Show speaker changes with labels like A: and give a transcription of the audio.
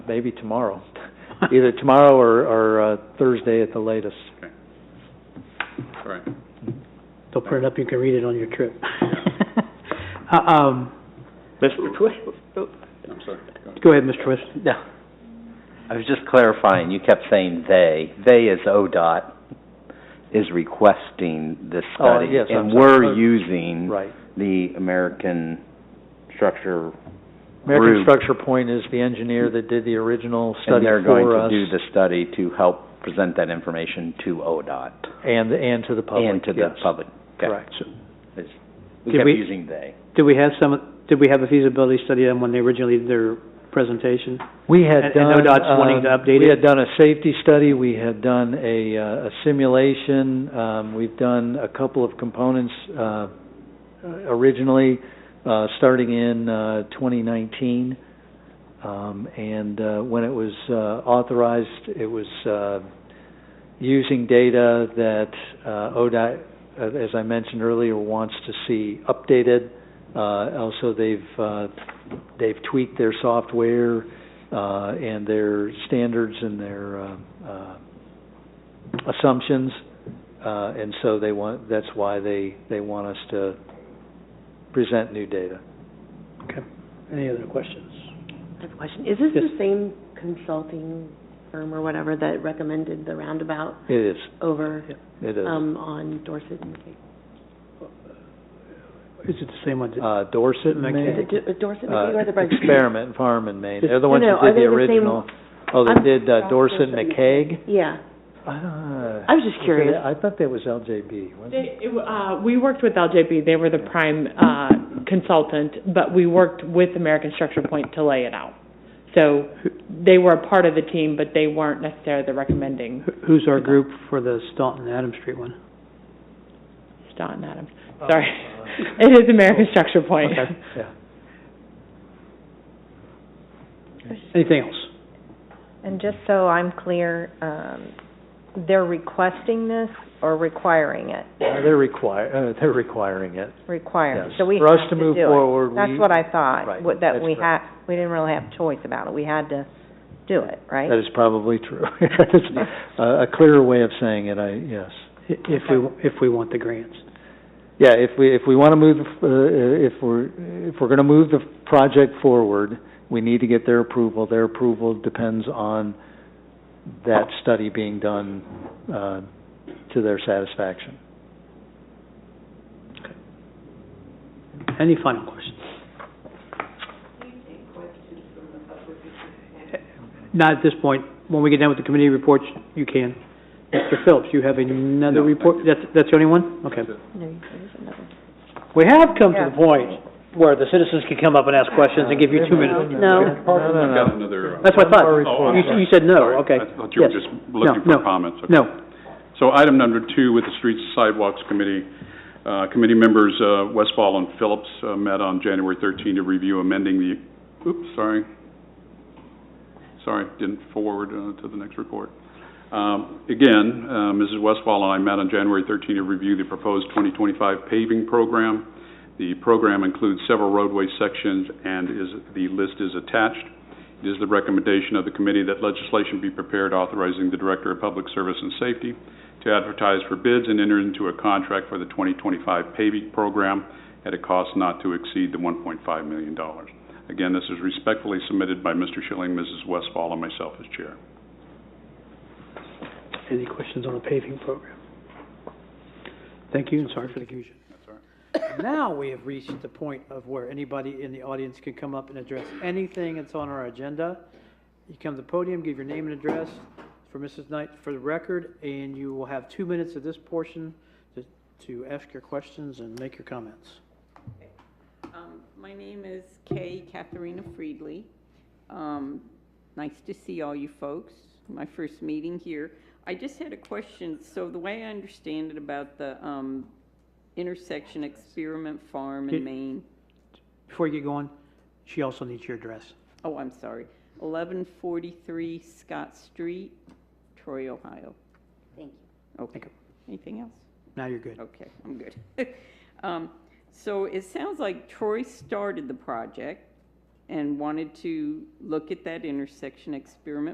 A: maybe tomorrow. Either tomorrow or, or uh, Thursday at the latest.
B: All right.
C: They'll print it up, you can read it on your trip. Uh, Um,
A: Mr.
B: I'm sorry. Go ahead.
C: go ahead, Mr. West.
D: No. I was just clarifying, you kept saying "they." "They" is ODOT is requesting this
A: Oh,
D: study.
A: yes, I'm
D: And
A: sorry.
D: we're using
A: Right.
D: the American structure,
A: American
D: Rube.
A: Structure Point is the engineer that did the original
D: and
A: study
D: they're going
A: for
D: to
A: us
D: do the study to help present that information to ODOT
A: and, and to the public.
D: and to the
A: yes.
D: public. Okay.
A: Correct.
D: It's- We
C: Did
D: kept
C: we-
D: using "they."
C: Did we have some, did we have a feasibility study on when they originally did their presentation?
A: We had
C: And- and
A: done,
C: ODOT's wanting to
A: um,
C: update
A: we
C: it?
A: had done a safety study, we had done a, uh, a simulation, um, we've done a couple of components, uh, originally, uh, starting in, uh, twenty nineteen. Um, and, uh, when it was, uh, authorized, it was, uh, using data that, uh, ODOT, uh, as I mentioned earlier, wants to see updated. Uh, also, they've, uh, they've tweaked their software, uh, and their standards and their uh, uh, assumptions, uh, and so they want. That's why they they want us to present new data.
C: Okay. Any other questions?
E: I have a question. Is this
C: Yes.
E: the same consulting firm or whatever that recommended the roundabout
A: It is.
E: over,
A: It is.
E: um, on Dorset and K?
C: Is it the same one? that-
A: uh, Dorset, and
C: Okay.
E: Is
A: Maine.
E: it Do- Dorset and
A: Uh,
E: K or the Brighton?
A: Experiment Farm in Maine. They're the
E: No,
A: ones
E: no,
A: who did
E: are
A: the
E: they the same-
A: original. Oh, they
E: I'm-
A: did uh, Dorset and McCaig.
E: Yeah, I
A: I
E: was just curious.
A: I thought that was LJB. wasn't it?
F: They, it w- uh, we worked with LJB, they were the prime, uh, consultant, but we worked with American Structure Point to lay it out. So they were a part of the team, but they weren't necessarily the recommending
C: Who- Who's our group for the Staunton Adams Street one?
F: Staunton Adams. Sorry.
A: Oh,
F: It is American Structure Point.
C: Okay.
A: Yeah.
C: Anything else?
G: And just so I'm clear, um, they're requesting this or requiring it?
A: Uh, They're require, uh, they're requiring it.
G: Requiring,
A: Yes.
G: so we
A: For us
G: have
A: to
G: to
A: move
G: do it.
A: forward, we-
G: That's what I thought,
A: Right,
G: wa- that
A: that's
G: we had, we didn't really have choice about it, we had to do it,
A: That
G: right?
A: is probably true. That's A a clearer way of saying it, I, yes.
C: I- If we, if we want the grants.
A: Yeah, if we, if we want to move, the f- uh, if we're, if we're going to move the project forward, we need to get their approval. Their approval depends on that study being done uh, to their satisfaction.
C: Any final questions? Not at this point. When we get done with the committee reports, you can. Mr. Phillips, you have another
B: No,
C: report?
B: thank
C: That's, that's the only one? Okay.
G: No, there's another.
C: We have come to
G: Yeah.
C: the point where the citizens can come up and ask questions and give you two minutes.
E: No.
A: No, no,
B: I've
A: no.
B: got another. uh,
C: That's what I thought.
A: One more
B: Oh,
A: report.
B: I'm
C: You,
B: sorry.
C: you said
B: Sorry.
C: no, okay.
B: I thought you were
C: Yes.
B: just looking
C: No, no,
B: for comments. Okay.
C: No,
B: So item number two with the Streets Sidewalks Committee, uh, committee members uh, Westfall and Phillips uh, met on January 13 to review amending the, oops, sorry. Sorry, didn't forward uh, to the next report. Um, Again, uh, Mrs. Westfall and I met on January 13 to review the proposed 2025 paving program. The program includes several roadway sections and is, the list is attached. It is the recommendation of the committee that legislation be prepared authorizing the Director of Public Service and Safety to advertise for bids and enter into a contract for the 2025 paving program at a cost not to exceed the $1.5 million. Again, this is respectfully submitted by Mr. Schilling, Mrs. Westfall, and myself as chair.
C: any questions on the paving program? Thank you, and sorry for the confusion. Now we have reached the point of where anybody in the audience can come up and address anything that's on our agenda. You come to the podium, give your name and address for Mrs. Knight for the record, and you will have two minutes of this portion to, to ask your questions and make your comments.
H: Um, My name is Kay Katharina Friedley. Um, Nice to see all you folks, my first meeting here. I just had a question, so the way I understand it about the um, intersection Experiment Farm
C: Did-
H: in Maine,
C: Before you get going, she also needs your address.
H: oh, I'm sorry, 1143 Scott Street, Troy, Ohio.
E: Thank you.
H: Okay, anything else?
C: Now you're good.
H: Okay, I'm good. Um, So it sounds like Troy started the project, and wanted to look at that intersection, experiment